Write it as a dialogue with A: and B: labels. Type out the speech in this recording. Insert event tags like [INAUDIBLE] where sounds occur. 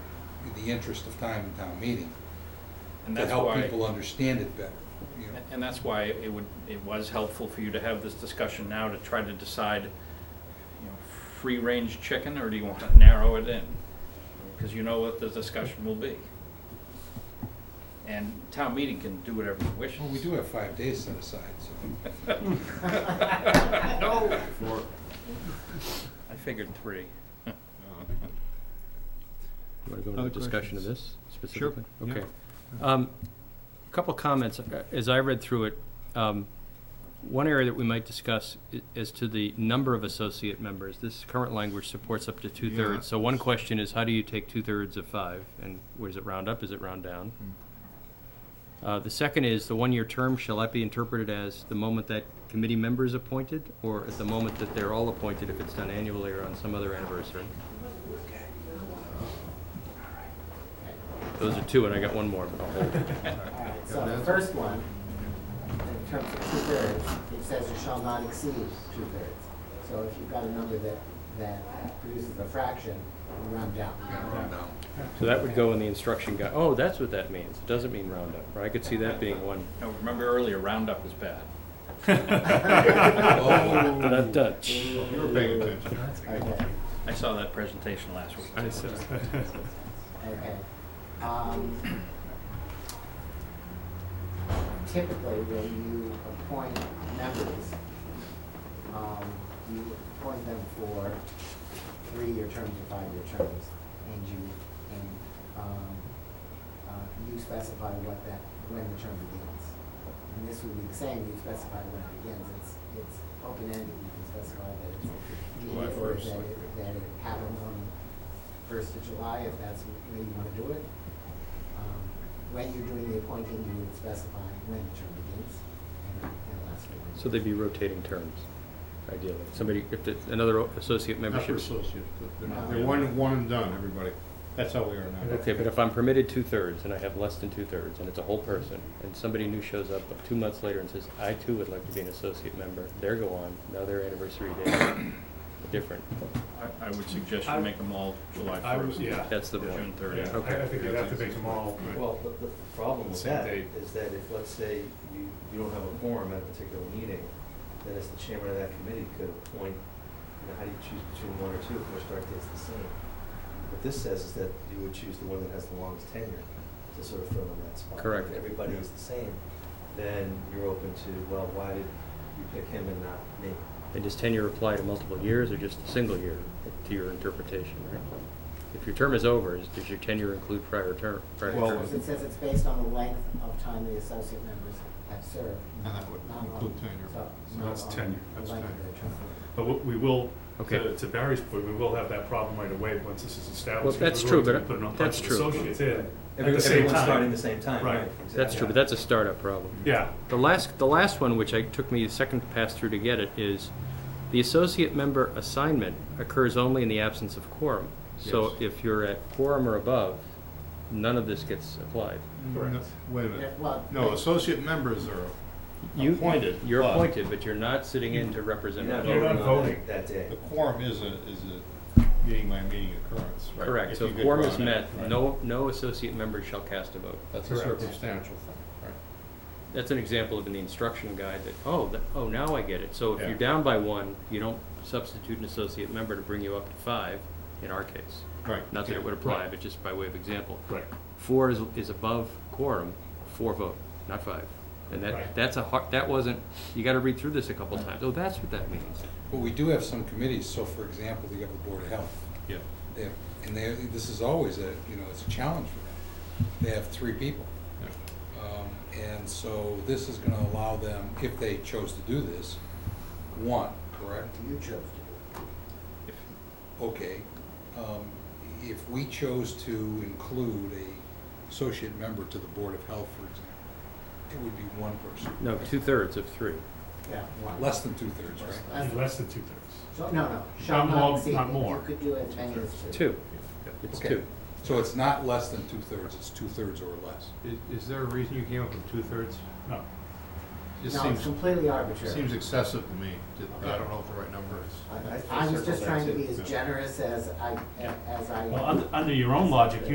A: in the interest of time in town meeting,
B: And
A: to
B: that's
A: help
B: why,
A: people understand it better, you know?
B: and that's why it would, it was helpful for you to have this discussion now to try to decide, you know, free-range chicken, or do you want to narrow it in? Because you know what the discussion will be. And town meeting can do whatever it wishes.
A: Well, we do have five days set aside, so.
B: [LAUGHS] No.
C: Four.
B: I figured three.
D: You want to go into
C: Other
D: a discussion of
C: questions?
D: this specifically?
C: yeah.
D: Okay. Um, a Couple comments, uh, as I read through it, um, one area that we might discuss i- is to the number of associate members. This current language supports up to two-thirds. So one question is, how do you take two-thirds of five? And where's it round up, is it round down?
C: Hmm.
D: Uh, The second is, the one-year term, shall that be interpreted as the moment that committee member is appointed? Or at the moment that they're all appointed, if it's done annually or on some other anniversary? Those are two, and I got one more, but I'll hold.
E: All right, so the first one, in terms of two-thirds, it says it shall not exceed two-thirds. So if you've got a number that, that produces a fraction, you round down.
A: No.
D: So that would go in the instruction guide. Oh, that's what that means. It doesn't mean roundup. Or I could see that being one.
B: Now, remember earlier, roundup is bad.
A: Oh,
D: Dun, dun, tsh.
C: You were paying attention.
E: Okay,
B: I saw that presentation last week.
C: I said.
E: okay. Um, Typically, when you appoint members, um, you appoint them for three-year terms or five-year terms, and you, and, um, uh, you specify what that, when the term begins. And this would be the same, you specify when it begins, it's, it's open-ended, you can specify that it's
B: July
E: immediate, or
B: first.
E: that it, that it happens on first of July, if that's the way you wanna do it. Um, When you're doing the appointing, you would specify when the term begins and, and lasts for one
D: So they'd be rotating terms, ideally. Somebody, if the- another o- associate
C: Not for
D: membership.
C: associates, but
E: No.
C: they're, they're one, one and done, everybody. That's how we are now.
D: Okay, but if I'm permitted two-thirds and I have less than two-thirds and it's a whole person, and somebody new shows up two months later and says, I too would like to be an associate member, they're go on, now their anniversary date is different.
B: I, I would suggest you make them all July
F: I would-
B: first.
F: yeah.
D: That's the point.
B: June thirtieth.
F: Yeah, I I think you'd have to make them all.
G: Well, but the problem with
C: Same
G: that
C: date.
G: is that if, let's say, you, you don't have a quorum at a particular meeting, then as the chairman of that committee could appoint, you know, how do you choose between one or two if their start date's the same? What this says is that you would choose the one that has the longest tenure to sort of fill in that spot.
D: Correct.
G: If everybody is the same, then you're open to, well, why did you pick him and not me?
D: And does tenure apply to multiple years or just a single year, to your interpretation, right? If your term is over, is- does your tenure include prior term? prior
C: Well,
D: terms?
E: Because it says it's based on the length of time the associate members have served.
C: And that would
E: not on-
C: include tenure.
E: so-
C: So
E: not
F: that's
E: on
F: tenure,
E: the
F: that's
E: length of
F: tenure.
E: their term.
F: But we- we will,
D: Okay.
F: to to Barry's point, we will have that problem right away once this is
D: Well,
F: established.
D: that's
F: because
D: true,
F: we're
D: but
F: putting a bunch
D: that's
F: of
D: true.
F: Associates in at
G: Every-
F: the same
G: Everyone's starting the
F: time.
G: same time,
F: Right.
G: right?
D: That's
G: Exactly.
D: true, but that's a startup problem.
F: Yeah,
D: The last, the last one, which I took me a second pass through to get it, is the associate member assignment occurs only in the absence of quorum. So if you're at quorum or above, none of this gets applied.
C: No,
F: correct.
C: Mm, Wait a
E: Yeah,
C: minute.
E: Well.
C: No, associate members are,
D: You-
C: Appointed,
D: You're
C: but-
D: appointed, but you're not sitting in to
G: You're
D: represent.
G: not
F: You're not
G: voting on
F: voting.
G: it that day.
C: the quorum is a, is a meeting by meeting occurrence, right?
D: Correct,
C: If
D: so
C: you
D: if
C: get
D: quorum is
C: drawn
D: met,
C: out, right.
D: no, no associate member shall cast a vote.
C: That's a
F: Correct.
C: circumstantial thing, right?
D: That's an example of in the instruction guide that, oh, that, oh, now I get it. So if
F: Yeah.
D: you're down by one, you don't substitute an associate member to bring you up to five, in our case.
C: Right.
D: Not that it would apply, but just by way of example.
F: Right.
D: Four is, is above quorum, four vote, not five. And that,
F: Right.
D: that's a hard, that wasn't, you gotta read through this a couple times. Oh, that's what that means.
A: But we do have some committees, so for example, we have the Board of Health.
F: Yeah.
A: They have, and they, this is always a, you know, it's a challenge for them. They have three people. Um, And so this is gonna allow them, if they chose to do this, one, correct?
E: You chose to do it.
A: Okay. Um, If we chose to include a associate member to the Board of Health, for example, it would be one person.
D: No, two-thirds of three.
E: Yeah. one.
A: Less than two-thirds, right?
E: That's-
F: Less than two-thirds.
E: So, no, no, shall
F: Not
E: not
F: more,
E: exceed,
F: not
E: you
F: more.
E: could do it ten years too.
D: Two, it's
A: Okay.
D: two.
A: So it's not less than two-thirds, it's two-thirds or less.
C: Is, is there a reason you came up with two-thirds?
F: No.
G: Oh.
C: Just
E: No, it's
C: seems,
E: completely arbitrary.
C: seems excessive to me. I don't know what the right number is.
E: I- I was just trying to be as generous as I, as I.
F: Well, under, under your own logic,